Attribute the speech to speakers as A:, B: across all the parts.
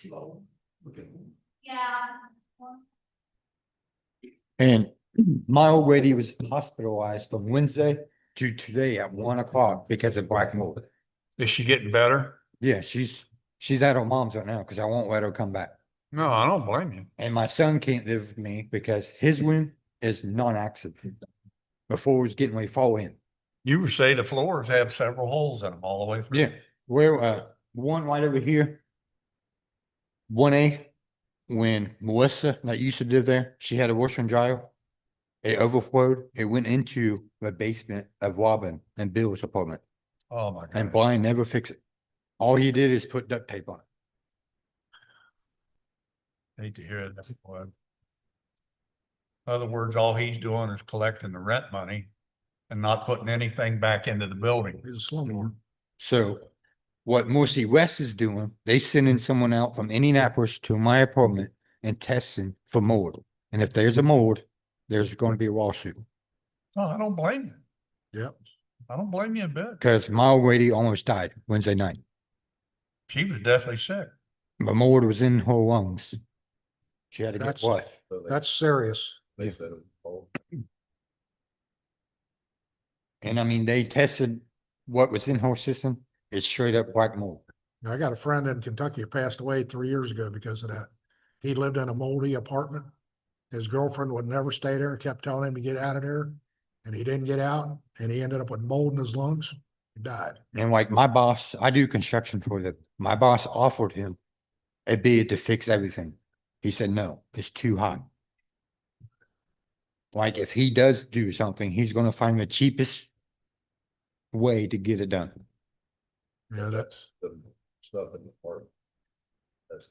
A: slow. Okay.
B: Yeah,
C: And my old lady was hospitalized from Wednesday to today at one o'clock because of black mold.
D: Is she getting better?
C: Yeah, she's, she's at her mom's right now because I won't let her come back.
D: No, I don't blame you.
C: And my son can't live with me because his wound is non-accident. Before it was getting ready to fall in.
D: You would say the floors have several holes in them all the way through.
C: Yeah, where, uh, one right over here. One A, when Melissa, that used to live there, she had a washer and dryer. It overflowed, it went into the basement of Robin and Bill's apartment,
D: Oh, my
C: and
D: God.
C: Brian never fixed it. All he did is put duct tape on it.
D: Hate to hear it. In other words, all he's doing is collecting the rent money and not putting anything back into the building. He's a slumlord.
C: So what Morrissey West is doing, they sending someone out from Indianapolis to my apartment and testing for mold. And if there's a mold, there's gonna be a lawsuit.
D: No, I don't blame you. Yep. I don't blame you a bit.
C: Cause my old lady almost died Wednesday night.
D: She was deathly sick.
C: The mold was in her lungs. She had to get
E: That's-
C: what?
E: That's serious.
A: They said it was cold.
C: And I mean, they tested what was in her system. It's straight up black mold.
E: I got a friend in Kentucky who passed away three years ago because of that. He lived in a moldy apartment. His girlfriend would never stay there, kept telling him to get out of there, and he didn't get out, and he ended up with mold in his lungs. He died.
C: And like my boss, I do construction for them. My boss offered him a bid to fix everything. He said, no, it's too high. Like if he does do something, he's gonna find the cheapest way to get it done.
E: Yeah, that,
A: The Stuff in the park. That's.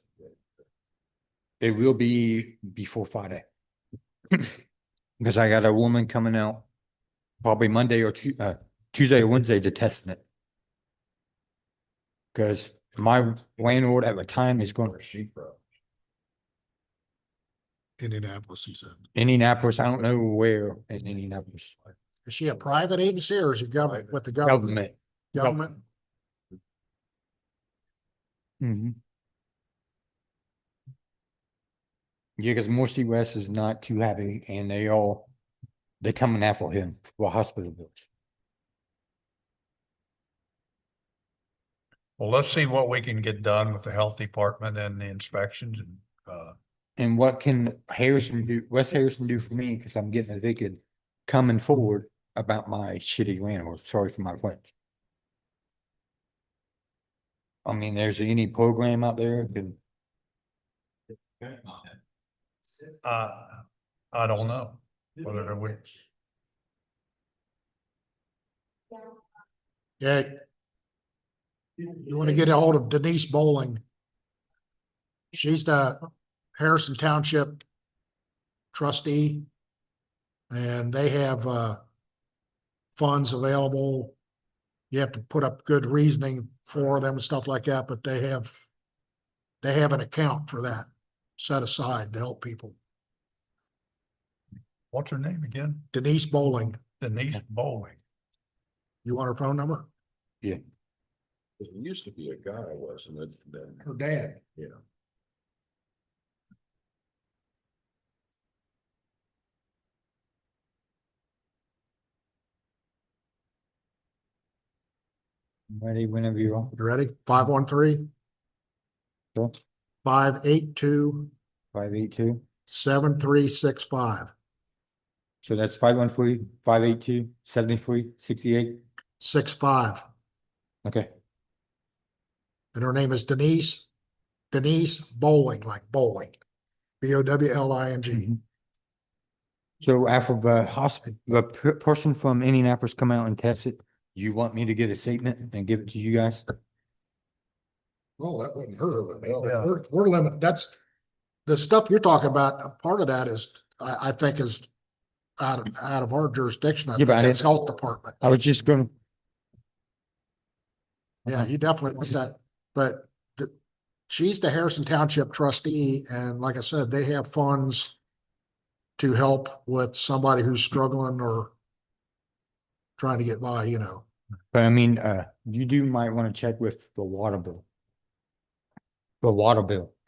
C: It will be before Friday. Because I got a woman coming out probably Monday or Tu- uh, Tuesday or Wednesday to test it. Because my landlord at the time is going,
A: Where she from?
E: Indianapolis, he said.
C: Indianapolis, I don't know where in Indianapolis,
E: Is she a private agency or is it government, with the government?
C: government.
E: Government?
C: Mm-hmm. Yeah, because Morrissey West is not too happy and they all, they coming after him for hospital bills.
D: Well, let's see what we can get done with the health department and the inspections and, uh,
C: And what can Harrison do, Wes Harrison do for me, because I'm getting evicted, coming forward about my shitty landlord, sorry for my French. I mean, there's any program out there, that
D: I, I don't know. Whether we,
E: Yeah, you want to get a hold of Denise Bowling. She's the Harrison Township trustee. And they have, uh, funds available. You have to put up good reasoning for them and stuff like that, but they have, they have an account for that set aside to help people.
D: what's her name again?
E: Denise Bowling,
D: Denise Bowling.
E: you want her phone number?
A: It used to be a guy, wasn't it? Then,
E: Her dad.
A: yeah.
C: ready whenever you are.
E: You ready? Five one three,
C: Sure.
E: five eight two,
C: Five eight two,
E: seven three six five.
C: so that's five one three, five eight two, seventy-three, sixty-eight,
E: six five,
C: okay.
E: and her name is Denise, Denise Bowling, like bowling. B O W L I N G.
C: Mhm. So after the hospital, the per- person from Indianapolis come out and test it, you want me to get a statement and give it to you guys?
E: Well, Oh, that wasn't her limit.
A: No.
D: Yeah.
E: We're, we're limit, that's, the stuff you're talking about, a part of that is, I, I think is out of, out of our jurisdiction. I
C: Yeah,
E: think
C: but I
E: that's
C: didn't-
E: health department.
C: I was just gonna,
E: Yeah, you definitely want that, but the, she's the Harrison Township trustee, and like I said, they have funds to help with somebody who's struggling or trying to get by, you know.
C: but I mean, uh, you do might wanna check with the water bill. for water bill.